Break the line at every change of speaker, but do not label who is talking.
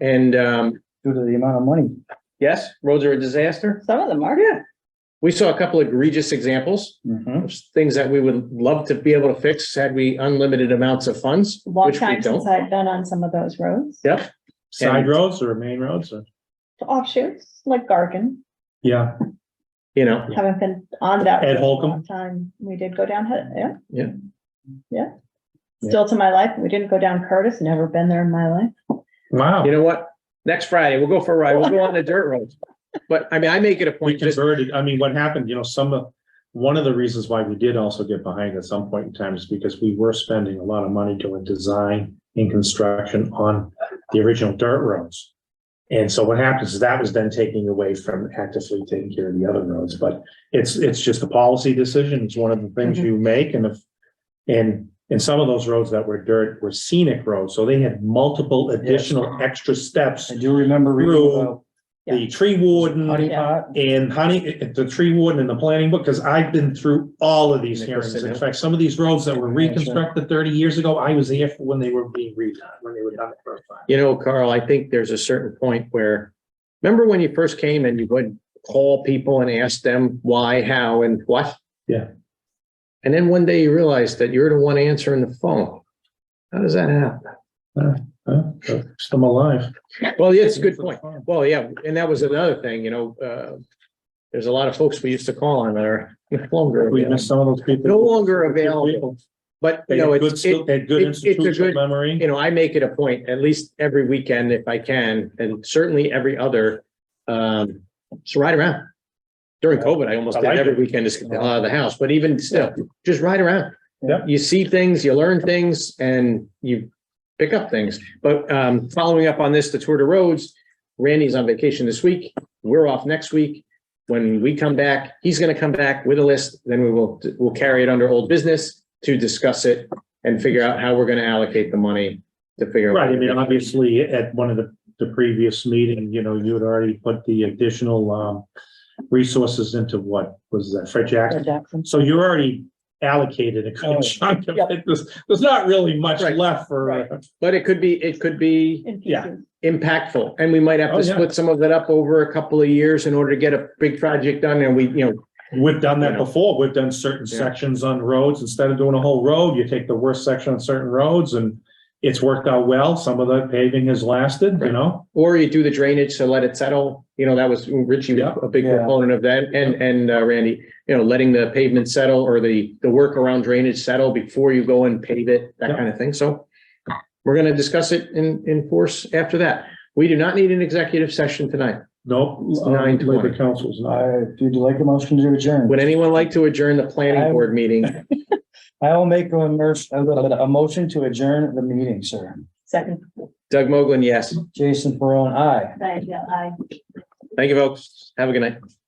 And, um,
due to the amount of money.
yes, roads are a disaster.
Some of them are. Yeah.
We saw a couple egregious examples of things that we would love to be able to fix had we unlimited amounts of funds,
Long
which we
time since
don't.
I've been on some of those roads.
Yep.
Side
And-
roads or main roads? or-
Offshoots, like Gargan,
Yeah,
You know,
haven't been on that.
Ed
road in a
Holcomb.
long Time, we did go down, Hud- yeah.
Yeah.
Yeah. Still to my life, we didn't go down Curtis, never been there in my life.
wow.
you know what? Next Friday, we'll go for a ride. We'll go on the dirt roads. But I mean, I make it a
We
point, just,
converted, I mean, what happened, you know, some of, one of the reasons why we did also get behind at some point in time is because we were spending a lot of money doing design and construction on the original dirt roads. And so what happens is that was then taking away from actively taking care of the other roads, but it's, it's just a policy decision. It's one of the things
Mm-hmm.
you make and if. And, and some of those roads that were dirt were scenic roads, so they had multiple additional extra steps.
I do remember reading
Through The tree warden.
the honey
Yeah.
pot.
And honey, the tree warden and the planning book, because I've been through all of these hearings. In fact, some of these roads that were reconstructed thirty years ago, I was there for when they were being redone, when they were done the first time.
you know, Carl, I think there's a certain point where, remember when you first came and you would call people and ask them why, how, and what?
Yeah.
And then one day you realize that you're the one answering the phone. How does that happen?
Huh? Still alive.
Well, yeah, it's a good point. Well, yeah, and that was another thing, you know, uh, there's a lot of folks we used to call on that are no longer
We
available.
missed some of those people.
No longer available, but
They
you
had
know,
good,
it's,
skill-
it,
they had good
it's a
institutional
good-
memory.
you know, I make it a point, at least every weekend if I can, and certainly every other, um, so ride around. During COVID, I almost
I
did
like
every
it.
weekend is out of the house, but even still, just ride around.
Yep.
You see things, you learn things, and you pick up things. But um, following up on this, the Tour de Roads, Randy's on vacation this week. We're off next week. When we come back, he's going to come back with a list. Then we will, we'll carry it under old business to discuss it and figure out how we're going to allocate the money to figure out.
Right, I mean, obviously, at one of the, the previous meeting, you know, you had already put the additional, um, resources into what was that, Fred Jackson?
Fred Jackson.
So you're already allocated a
Oh.
good chunk of
Yep.
it. There's, there's not really much
Right.
left
Right.
for.
But it could be, it could be
In
Yeah.
pieces.
impactful and we might have
Oh,
to
yeah.
split some of that up over a couple of years in order to get a big project done and we, you know,
We've done
You
that
know.
before. We've done certain
Yeah.
sections on roads. Instead of doing a whole road, you take the worst section on certain roads and it's worked out well. Some of the paving has lasted, you
Right.
know?
or you do the drainage to let it settle. You know, that was Richie, was
Yeah.
a big
Yeah.
proponent of that and, and uh, Randy, you know, letting the pavement settle or the, the work around drainage settle before you go and pave it, that
Yeah.
kind of thing. So we're going to discuss it in, in force after that. We do not need an executive session tonight.
Nope.
It's
uh,
9:20.
Labor council's
I,
not.
if you'd like a motion to adjourn,
Would anyone like to adjourn the planning
I-
board meeting?
I will make a merge, a little bit- a motion to adjourn the meeting, sir.
Second.
Doug Moglen, yes.
Jason Peron, aye.
Right, yeah, I.
Thank you, folks. Have a good night.